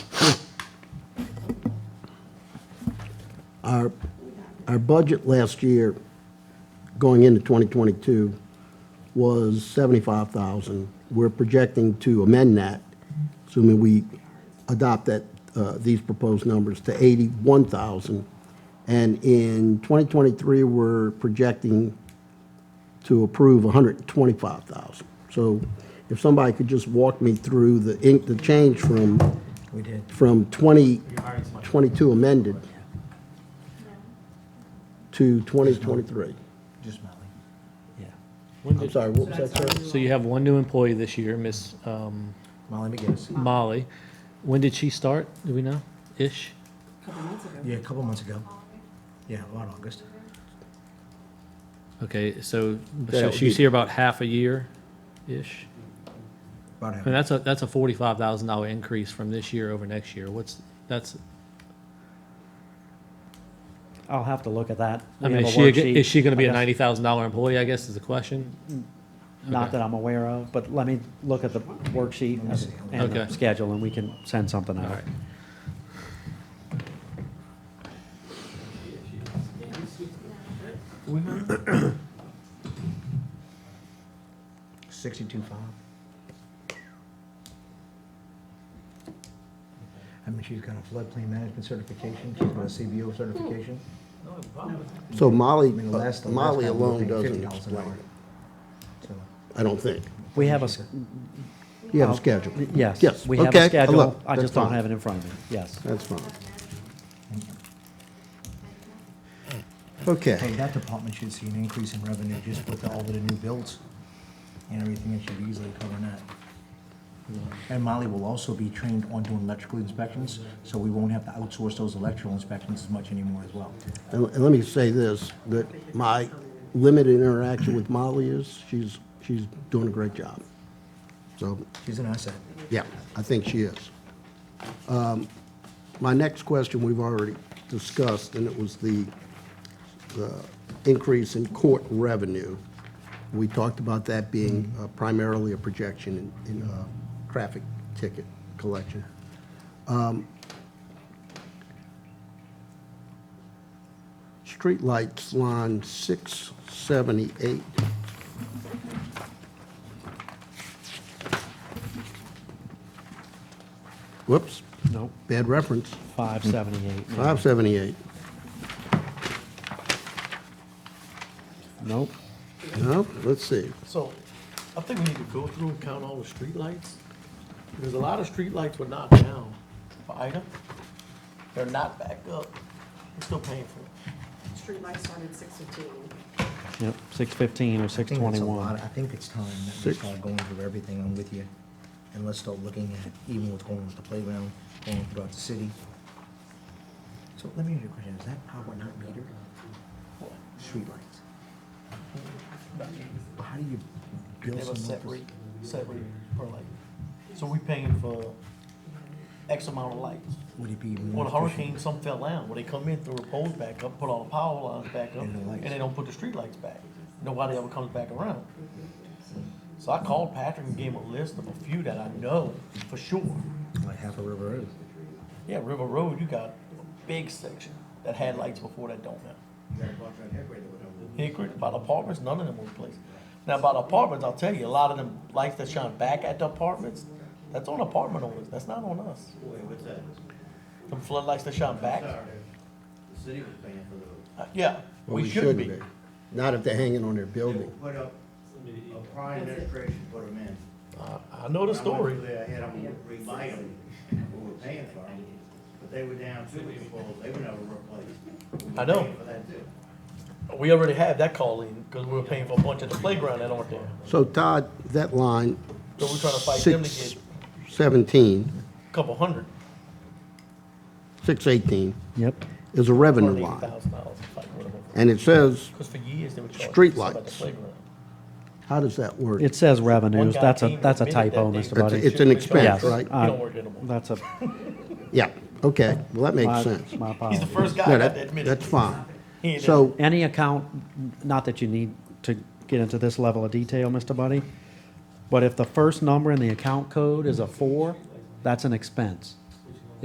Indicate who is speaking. Speaker 1: our, our budget last year, going into 2022, was 75,000. We're projecting to amend that, assuming we adopt that, uh, these proposed numbers, to 81,000. And in 2023, we're projecting to approve 125,000. So if somebody could just walk me through the, in- the change from,
Speaker 2: We did.
Speaker 1: from 20, 22 amended to 2023.
Speaker 2: Just Molly. Yeah.
Speaker 3: When
Speaker 1: I'm
Speaker 3: did-
Speaker 1: sorry, what was that, sir?
Speaker 3: So you have one new employee this year, Miss um,
Speaker 2: Molly McGinnis.
Speaker 3: Molly. When did she start? Do we know? Ish?
Speaker 4: couple months ago.
Speaker 2: Yeah, a couple months ago. Yeah, about August.
Speaker 3: Okay, so,
Speaker 1: That
Speaker 3: so
Speaker 1: would
Speaker 3: she's
Speaker 1: be-
Speaker 3: here about half a year-ish?
Speaker 2: About
Speaker 3: I mean,
Speaker 2: half.
Speaker 3: that's a, that's a forty-five thousand dollar increase from this year over next year. What's, that's,
Speaker 5: I'll have to look at that.
Speaker 3: I
Speaker 5: We
Speaker 3: mean,
Speaker 5: have
Speaker 3: is
Speaker 5: a
Speaker 3: she, a-
Speaker 5: worksheet,
Speaker 3: is she gonna be a
Speaker 5: I guess,
Speaker 3: ninety thousand dollar employee, I guess is the question?
Speaker 5: Not
Speaker 3: okay.
Speaker 5: that I'm aware of, but let me look at the worksheet
Speaker 2: me see.
Speaker 5: and the
Speaker 3: Okay.
Speaker 5: schedule, and we can send something
Speaker 3: All
Speaker 5: out.
Speaker 3: right.
Speaker 2: Sixty-two five. I mean, she's got a floodplain management certification, she's got a CBO certification.
Speaker 1: So Molly,
Speaker 2: I mean, the last, the last
Speaker 1: Molly
Speaker 2: time we
Speaker 1: alone
Speaker 2: paid
Speaker 1: doesn't
Speaker 2: $50 an
Speaker 1: explain
Speaker 2: hour.
Speaker 1: it,
Speaker 2: So,
Speaker 1: I don't think.
Speaker 5: We have a, s-
Speaker 1: You have a
Speaker 5: Oh,
Speaker 1: schedule.
Speaker 5: yes.
Speaker 1: Yes,
Speaker 5: We have
Speaker 1: okay, I
Speaker 5: a schedule.
Speaker 1: look,
Speaker 5: I
Speaker 1: that's
Speaker 5: just don't
Speaker 1: fine.
Speaker 5: have it in front of me, yes.
Speaker 1: That's fine. Okay,
Speaker 2: Hey, that department should see an increase in revenue just with all of the new builds and everything, it should easily cover that. And Molly will also be trained on doing electrical inspections, so we won't have to outsource those electrical inspections as much anymore as well.
Speaker 1: and and let me say this, that my limited interaction with Molly is, she's, she's doing a great job. So,
Speaker 2: She's an asset.
Speaker 1: yeah, I think she is. Um, My next question, we've already discussed, and it was the, the increase in court revenue. We talked about that being uh, primarily a projection in, in uh, traffic ticket collection. Um, Streetlights line 678. Whoops,
Speaker 5: Nope,
Speaker 1: bad reference.
Speaker 5: five seventy-eight.
Speaker 1: 578.
Speaker 5: Nope,
Speaker 1: No, let's see.
Speaker 6: So I think we need to go through and count all the streetlights. Because a lot of streetlights were knocked down for Ida. They're not back up. We're still paying for it.
Speaker 4: Streetlights started six fifteen.
Speaker 5: yep, six fifteen or
Speaker 2: I
Speaker 5: six
Speaker 2: think that's a
Speaker 5: twenty-one.
Speaker 2: lot. I think it's time that we
Speaker 1: Six.
Speaker 2: start going through everything, I'm with you. And let's start looking at even what's going on with the playground, going throughout the city. So let me ask you a question, is that power not metered? Streetlights? But How do you
Speaker 6: They
Speaker 2: bill
Speaker 6: have a set
Speaker 2: someone
Speaker 6: rate, set rate per light. So we paying for X amount of lights.
Speaker 2: for, would it be
Speaker 6: When
Speaker 2: more
Speaker 6: a
Speaker 2: efficient?
Speaker 6: hurricane, some fell down. When they come in, throw the poles back up, put all the power lines back up,
Speaker 2: And the
Speaker 6: and
Speaker 2: lights.
Speaker 6: they don't put the streetlights back. Nobody ever comes back around. So I called Patrick and gave him a list of a few that I know for sure.
Speaker 2: Like half a river road.
Speaker 6: Yeah, River Road, you got a big section that had lights before that don't now. Hickory, about apartments, none of them were replaced. Now, about apartments, I'll tell you, a lot of them lights that shine back at the apartments, that's on apartment owners, that's not on us.
Speaker 7: Wait, what's that?
Speaker 6: Them floodlights that shine back,
Speaker 7: The city was paying for those.
Speaker 6: uh, yeah,
Speaker 1: Well,
Speaker 6: we shouldn't be.
Speaker 1: Not if they're hanging on their building.
Speaker 7: Put up, a prior administration put them in.
Speaker 6: I I know the
Speaker 7: I
Speaker 6: story.
Speaker 7: went through there, I had them remite them, who were paying for them, but they were down two weeks before, they were never replaced. We
Speaker 6: I know.
Speaker 7: paid For that too.
Speaker 6: We already have that call in, because we were paying for a bunch at the playground that aren't there.
Speaker 1: So Todd, that line.
Speaker 6: So we're trying to fight them to
Speaker 1: six
Speaker 6: get-
Speaker 1: Seventeen,
Speaker 6: Couple hundred,
Speaker 1: six eighteen
Speaker 5: Yep,
Speaker 1: is a revenue
Speaker 6: hundred eighty
Speaker 1: line.
Speaker 6: thousand dollars, like, whatever.
Speaker 1: And it says,
Speaker 6: Because for years, they were charging. us About the
Speaker 1: Streetlights.
Speaker 6: playground.
Speaker 1: how does that work?
Speaker 5: it says
Speaker 6: One
Speaker 5: revenues,
Speaker 6: guy
Speaker 5: that's
Speaker 6: came
Speaker 5: a,
Speaker 6: and
Speaker 5: that's a
Speaker 6: admitted
Speaker 5: typo,
Speaker 6: that they-
Speaker 5: Mr.
Speaker 1: It's-
Speaker 5: Buddy.
Speaker 1: it's an expense,
Speaker 5: Yes,
Speaker 1: right?
Speaker 6: He
Speaker 5: uh,
Speaker 6: don't work anymore.
Speaker 5: That's a,
Speaker 1: Yeah, okay, well, that makes
Speaker 5: my
Speaker 1: sense.
Speaker 5: my
Speaker 6: He's the
Speaker 5: apologies.
Speaker 6: first guy
Speaker 1: No,
Speaker 6: that
Speaker 1: that,
Speaker 6: admitted.
Speaker 1: that's
Speaker 6: it.
Speaker 1: fine.
Speaker 6: He ain't
Speaker 1: So,
Speaker 5: Any account, not that you need to get into this level of detail, Mr. Buddy, but if the first number in the account code is a four, that's an expense.